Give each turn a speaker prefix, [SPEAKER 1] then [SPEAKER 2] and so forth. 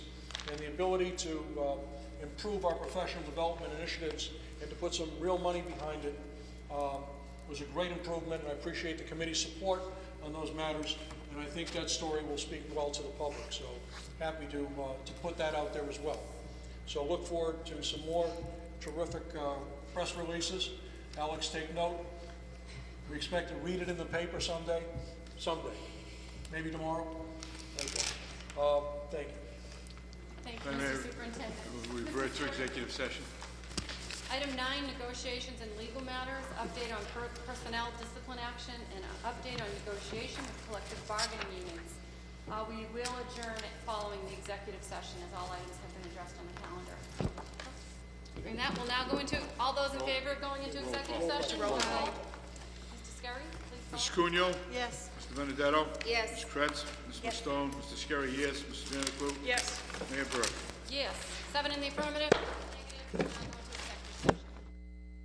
[SPEAKER 1] and the ability to uh, improve our professional development initiatives and to put some real money behind it um, was a great improvement, and I appreciate the committee's support on those matters, and I think that story will speak well to the public, so happy to, uh, to put that out there as well. So look forward to some more terrific uh, press releases. Alex, take note. We expect to read it in the paper someday, someday, maybe tomorrow. Okay. Uh, Thank you.
[SPEAKER 2] Thank you,
[SPEAKER 3] Madam Mayor,
[SPEAKER 2] Mr. Superintendent.
[SPEAKER 3] We
[SPEAKER 2] Mr.
[SPEAKER 3] revert to
[SPEAKER 2] Chairman.
[SPEAKER 3] executive session.
[SPEAKER 2] Item nine, negotiations and legal matters, update on per- personnel discipline action, and an update on negotiation with collective bargaining units. Uh, We will adjourn it following the executive session, as all items have been addressed on the calendar. And that will now go into, all those in favor of going into executive session? Aye. Mr. Scarry, please
[SPEAKER 3] Mrs.
[SPEAKER 2] call.
[SPEAKER 3] Cunyo?
[SPEAKER 4] Yes.
[SPEAKER 3] Mr. Benedetto?
[SPEAKER 4] Yes.
[SPEAKER 3] Mrs. Kretz? Mr. Stone? Mr. Scarry, yes. Mr. Vanuatu?
[SPEAKER 4] Yes.
[SPEAKER 3] Mayor Burke?
[SPEAKER 2] Yes, seven in the affirmative. Negative. Now go into